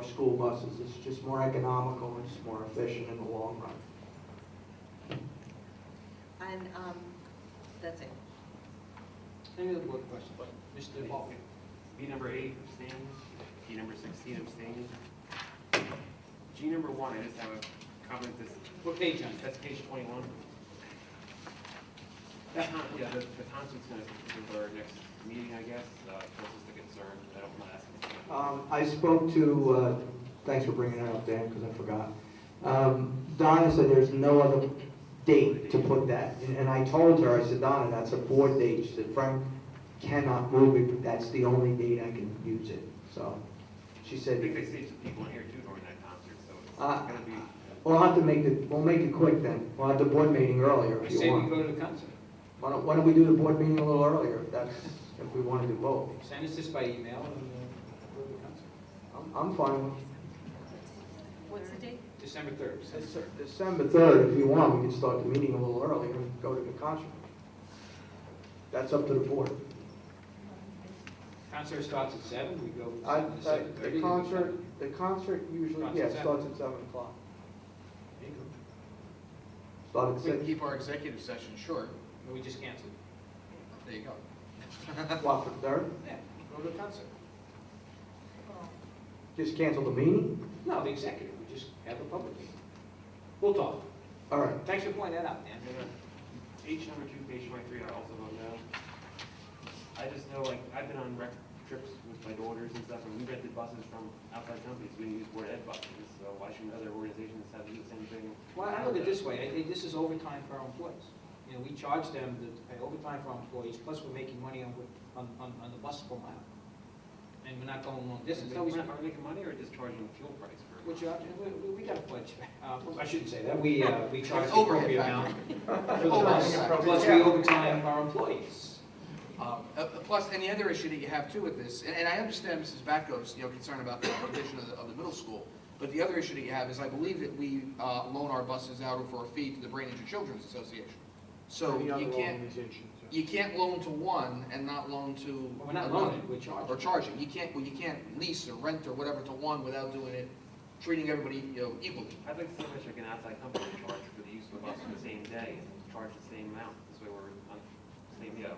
school buses. It's just more economical, and it's more efficient in the long run. And, um, that's it. Any other board questions? Mr. Baldwin? B number eight abstaining, D number sixteen abstaining. G number one, I just have a comment, this, What page on that's page twenty-one. That, con- yeah, the, the constant's gonna be for our next meeting, I guess, uh, this is the concern, I don't wanna ask. this again. Um, I spoke to, uh, thanks for bringing that up, Dan, because I forgot. Um, Donna said there's no other date to put that, and and I told her, I said, Donna, that's a board date, she said, Frank cannot move it, but that's the only date I can use it, so, she I think said, they saved some people in here too during that concert, so it's Uh, gonna be, we'll have to make it, we'll make it quick then, we'll have the board meeting earlier I if say you we want. go to the council. Why don't, why don't we do the board meeting a little earlier, if that's, if we want to do both? Send us this by email and uh, go to the council. I'm, I'm fine with What's the date? December 3rd. December Dece- December 3rd, if you want, we can start the meeting a little earlier and go to the concert. That's up to the board. 3rd. Concert starts at seven. we go I- to I- seven thirty. The concert, the concert usually, Starts yeah, at seven. starts at 7 o'clock. Start at We can 6, keep our executive session short. We just canceled. There you go. what, for 3rd? Yeah, go to the concert. Just cancel the meeting? No, the executive, we just have a public meeting. We'll talk. All right. Thanks for pointing that out, Dan. and then, uh, H number two, page twenty-three, I also vote no. I just know, like, I've been on rec trips with my daughters and stuff, and we rented buses from outside companies, we didn't use board ed buses, so why shouldn't other organizations have to do the same thing? Well, I look at it this way, I think this is overtime for our employees. You know, we charge them to pay overtime for our employees, plus we're making money on, on, on on the bus per mile. And we're not going long distance, no, Are we're we not, making money or just charging fuel price for? we charge, we, we- we got a pledge, uh, I shouldn't say that, we, uh, we charge the Overhead appropriate factor. amount for the bus, Overhead factor. plus we overtime our employees. Um, uh, Plus, any other issue that you have too with this, and and I understand Mrs. Batko's, you know, concern about the condition of the, of the middle school, but the other issue that you have is I believe that we uh, loan our buses out for a fee to the Brain Injured Children's Association. So you can't, you can't loan to one and not loan to. Well, We're not another. loaning, we're Or charging. charging, you can't, well, you can't lease or rent or whatever to one without doing it, treating everybody, you know, equally. I'd like to see if I can outside company to charge for the use of the bus for the same day, and charge the same amount, this way we're on, the same, you know,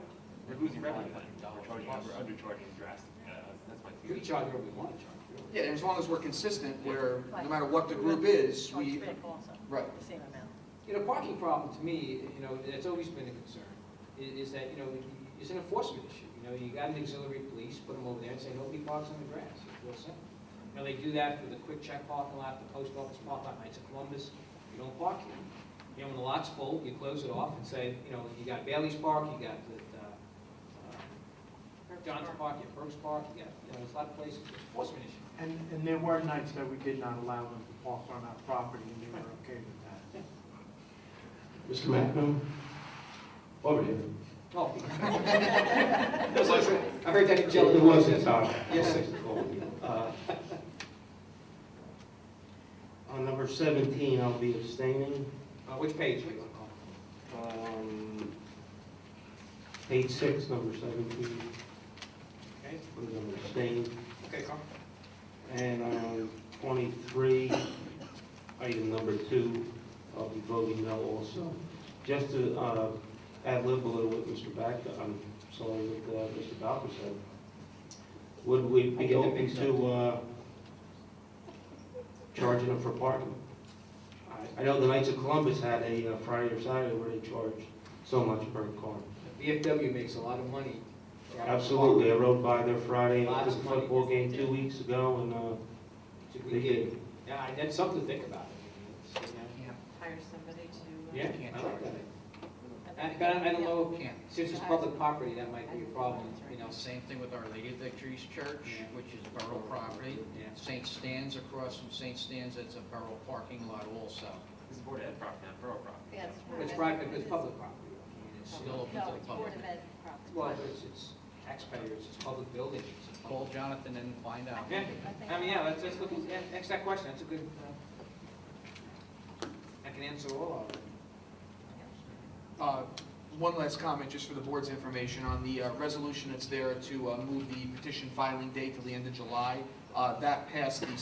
we're losing revenue then, we're charging, we're undercharging drastically, uh, that's my We theory. charge where we want to charge, really. Yeah, and as long as we're consistent, where, no matter what the group is, we, Oh, also, right. the same amount. You know, parking problem to me, you know, that's always been a concern, i- is that, you know, it's an enforcement issue. You know, you got an auxiliary police, put them over there and say, nobody parks on the grass, it's real simple. You know, they do that for the quick check parking lot, the post office parking lot, Knights of Columbus, you don't park here. You know, when the lot's full, you close it off and say, you know, you got Bailey's Park, you got the, uh, uh, John's Park, you got Burke's Park, you got, you know, there's a lot of places, it's an enforcement issue. And, and there were nights that we did not allow them to park on our property, and they were okay with that. Mr. Macno? Over here. Oh. I heard that in jail. It wasn't, sorry. Yes. Uh, On number 17, I'll be abstaining. Uh, Which page? Um, Page six, number 17, Okay, I'm going to abstain. okay, Carl. And on 23, item number two, I'll be voting no also. Just to uh, add lib a little with Mr. Back, I'm sorry, with uh, Mr. Balfour said, would we I get be the open mix to uh, charging them for parking? I- I know the Knights of Columbus had a uh, Friday or Saturday where they charged so much per car. VFW makes a lot of money. Absolutely, I rode by there Friday after Lots the of money. football game two weeks ago, and uh, Should they we did. get- Yeah, and that's something to think about. I mean, it's, you know, Hire somebody to. uh, Yeah, I like that. I I- think- But I I don't know, Can't. since it's public property, that might be a problem, you know. Same thing with Our Lady of Victory's Church, Yeah. which is borough property. Yeah. St. Stan's across from St. Stan's, that's a borough parking lot also. This is board ed property, not borough property. Yes. It's private, but it's public property. I mean, it's, you Still know, open to No, the it's Board public. of Ed property. Well, it's, it's taxpayers, it's public buildings. it's public- Call Jonathan and find out. Yeah, I think- I mean, yeah, let's, let's look, at- yeah, ask that question, that's a good, uh, I can answer all of them. Uh, One last comment, just for the board's information, on the uh, resolution that's there to uh, move the petition filing date to the end of July. Uh, That passed the